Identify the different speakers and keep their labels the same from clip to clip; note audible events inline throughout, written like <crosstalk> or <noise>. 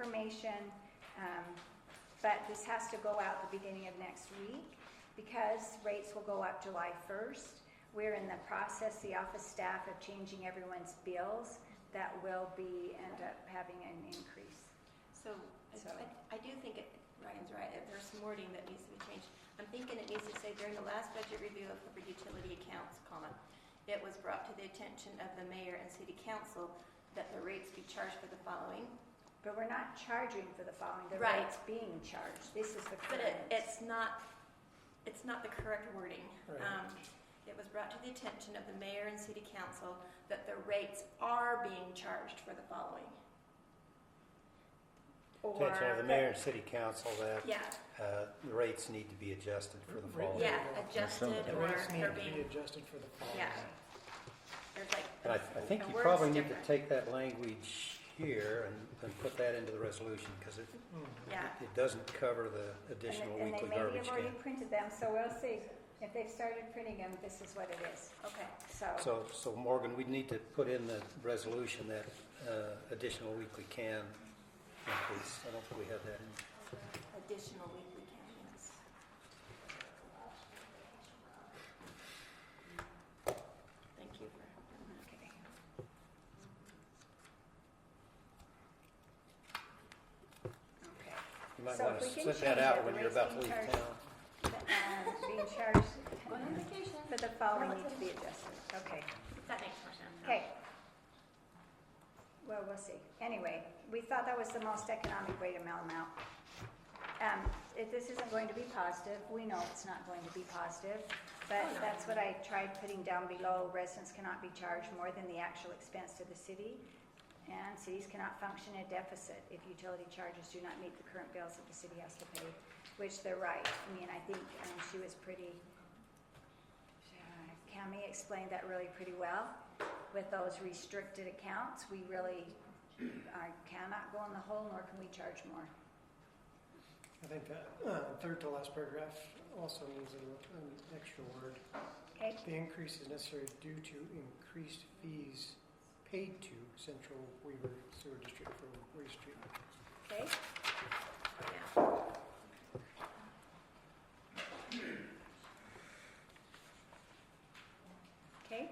Speaker 1: information, um, but this has to go out the beginning of next week because rates will go up July first. We're in the process, the office staff, of changing everyone's bills. That will be, end up having an increase.
Speaker 2: So, I-
Speaker 1: So-
Speaker 2: I, I do think it, Ryan's right, if there's some wording that needs to be changed. I'm thinking it needs to say during the last budget review of public utility accounts, comma, it was brought to the attention of the mayor and city council that the rates be charged for the following.
Speaker 1: But we're not charging for the following, the
Speaker 2: Right.
Speaker 1: rate's being charged. This is the
Speaker 2: But
Speaker 1: current.
Speaker 2: it, it's not, it's not the correct wording.
Speaker 3: Right.
Speaker 2: Um, It was brought to the attention of the mayor and city council that the rates are being charged for the following.
Speaker 1: Or
Speaker 4: Attention of the
Speaker 1: the-
Speaker 4: mayor and city council that
Speaker 2: Yeah,
Speaker 4: uh, the rates need to be adjusted for the fall.
Speaker 2: yeah,
Speaker 3: Yeah.
Speaker 2: adjusted
Speaker 3: The
Speaker 2: or
Speaker 3: rates need
Speaker 2: they're
Speaker 3: to be
Speaker 2: being,
Speaker 3: adjusted for the fall.
Speaker 2: Yeah. there's like.
Speaker 4: And I, I think
Speaker 2: the
Speaker 4: you
Speaker 2: word's
Speaker 4: probably need to
Speaker 2: different.
Speaker 4: take that language here and, and put that into the resolution because it,
Speaker 3: Mhm.
Speaker 2: Yeah.
Speaker 4: it doesn't cover the
Speaker 1: and
Speaker 4: additional
Speaker 1: they-
Speaker 4: weekly
Speaker 1: And they maybe
Speaker 4: garbage
Speaker 1: have
Speaker 4: can.
Speaker 1: already printed them, so we'll see. If they've started printing them, this is what it is.
Speaker 2: Okay,
Speaker 1: So,
Speaker 4: So, so Morgan, we need to put in the resolution that uh, additional weekly can increase. I don't think we have that in.
Speaker 2: additional weekly counties. Thank you for doing that.
Speaker 1: okay. Okay.
Speaker 4: You might
Speaker 1: So
Speaker 4: want
Speaker 1: if we
Speaker 4: to
Speaker 1: can
Speaker 4: set
Speaker 1: change
Speaker 4: that
Speaker 1: it,
Speaker 4: out when you're
Speaker 1: raise
Speaker 4: about
Speaker 1: the
Speaker 4: to leave
Speaker 1: charge-
Speaker 4: town.
Speaker 1: And being charged
Speaker 2: Going on vacation.
Speaker 1: Uh, for the following need to be adjusted. Okay.
Speaker 2: That makes more sense.
Speaker 1: Okay. Well, we'll see. Anyway, we thought that was the most economic way to mail them out. Um, if this isn't going to be positive, we know it's not going to be positive, but
Speaker 2: Oh, no.
Speaker 1: that's what I tried putting down below. Residents cannot be charged more than the actual expense to the city, and cities cannot function at deficit if utility charges do not meet the current bills that the city has to pay, which they're right. I mean, I think, um, she was pretty, uh, Cami explained that really pretty well. With those restricted accounts, we really are, cannot go in the hole, nor can we charge more.
Speaker 3: I think that uh, third to last paragraph also needs a- an extra word.
Speaker 1: Okay,
Speaker 3: The increase is necessary due to increased fees paid to Central Weaver Sewer District for waste treatment.
Speaker 1: okay, okay.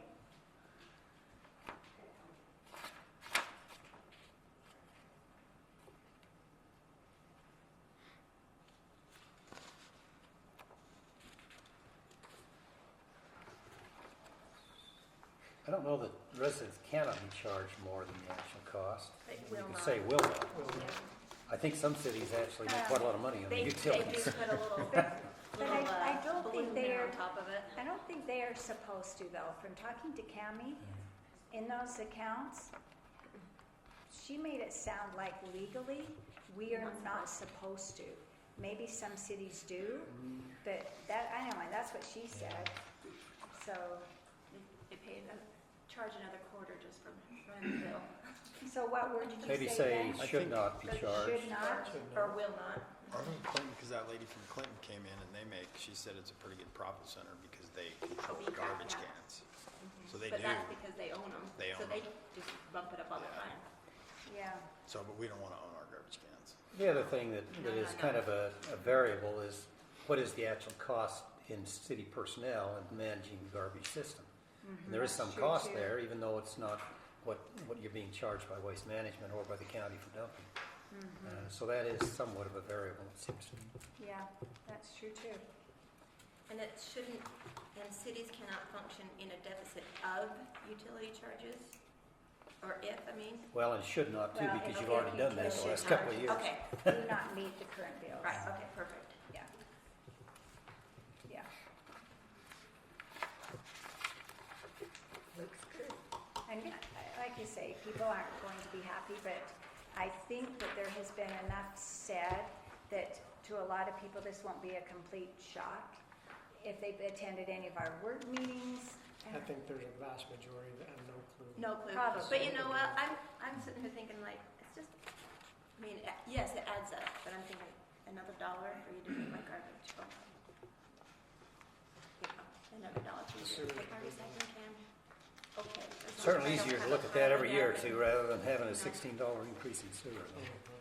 Speaker 4: I don't know that residents cannot be charged more than the actual cost.
Speaker 2: They
Speaker 4: You
Speaker 2: will
Speaker 4: can
Speaker 2: not.
Speaker 4: say will not.
Speaker 3: Well,
Speaker 4: I think some cities actually make quite a lot of money on the
Speaker 2: They, they do
Speaker 4: utilities.
Speaker 2: put a
Speaker 5: <laughs>
Speaker 2: little,
Speaker 1: But I-
Speaker 2: little,
Speaker 1: I
Speaker 2: uh,
Speaker 1: don't think
Speaker 2: balloon
Speaker 1: they
Speaker 2: there
Speaker 1: are-
Speaker 2: on top of it.
Speaker 1: I don't think they are supposed to though, from talking to Cami, in those accounts, she made it sound like legally, we are not supposed to. Maybe some cities do, but that, I know, and that's what she said, so,
Speaker 2: They- They pay, another- charge another quarter just from running the bill.
Speaker 1: so what word did you
Speaker 4: Maybe
Speaker 1: say
Speaker 4: say
Speaker 1: again?
Speaker 5: I
Speaker 4: should
Speaker 5: think-
Speaker 4: not be
Speaker 2: But it
Speaker 4: charged.
Speaker 1: Should not,
Speaker 2: Or will not.
Speaker 5: I think Clinton, because that lady from Clinton came in and they make, she said it's a pretty good profit center because they control
Speaker 2: Because,
Speaker 5: garbage
Speaker 2: yeah. Mm-hmm.
Speaker 5: cans. So they
Speaker 2: But
Speaker 5: do,
Speaker 2: that's because they own them.
Speaker 5: They
Speaker 2: So
Speaker 5: own
Speaker 2: they
Speaker 5: 'em.
Speaker 2: just bump it up all the
Speaker 5: Yeah.
Speaker 2: time.
Speaker 1: yeah,
Speaker 5: so, but we don't want to own our garbage cans.
Speaker 4: The other thing that, that
Speaker 2: No,
Speaker 4: is
Speaker 2: no,
Speaker 4: kind
Speaker 2: no.
Speaker 4: of a, a variable is what is the actual cost in city personnel and managing the garbage system? And There is some
Speaker 1: mm-hmm. That's true,
Speaker 4: cost
Speaker 1: too.
Speaker 4: there, even though it's not what, what you're being charged by waste management or by the county for dumping. Uh, So that is somewhat of a variable, it seems to me.
Speaker 1: yeah, that's true too.
Speaker 2: And it shouldn't, and cities cannot function in a deficit of utility charges, or if, I mean.
Speaker 4: Well, and should not too,
Speaker 1: Well,
Speaker 4: because you've
Speaker 2: okay,
Speaker 4: already done that
Speaker 1: because
Speaker 4: in the
Speaker 1: you
Speaker 4: last couple of years. <laughs>
Speaker 2: Okay,
Speaker 1: Do not meet the current bills.
Speaker 2: right, okay, perfect.
Speaker 1: Yeah. Yeah. Looks good. And I- like you say, people aren't going to be happy, but I think that there has been enough said that to a lot of people, this won't be a complete shock. If they've attended any of our work meetings,
Speaker 3: I think there's a vast majority that have no clue.
Speaker 2: No clue.
Speaker 1: Probably.
Speaker 2: But you know what, I'm, I'm sitting here thinking like, it's just, I mean, uh, yes, it adds up, but I'm thinking another dollar for you to take my garbage. Oh. Yeah, Another dollar for you
Speaker 3: Sure.
Speaker 2: to take my recycling can. Okay. as long as
Speaker 4: Certainly
Speaker 2: I don't
Speaker 4: easier to
Speaker 2: have
Speaker 4: look
Speaker 2: a
Speaker 4: at that
Speaker 2: pile
Speaker 4: every year or
Speaker 2: down.
Speaker 4: two, rather than having a sixteen dollar increase in sewer.
Speaker 3: Mhm.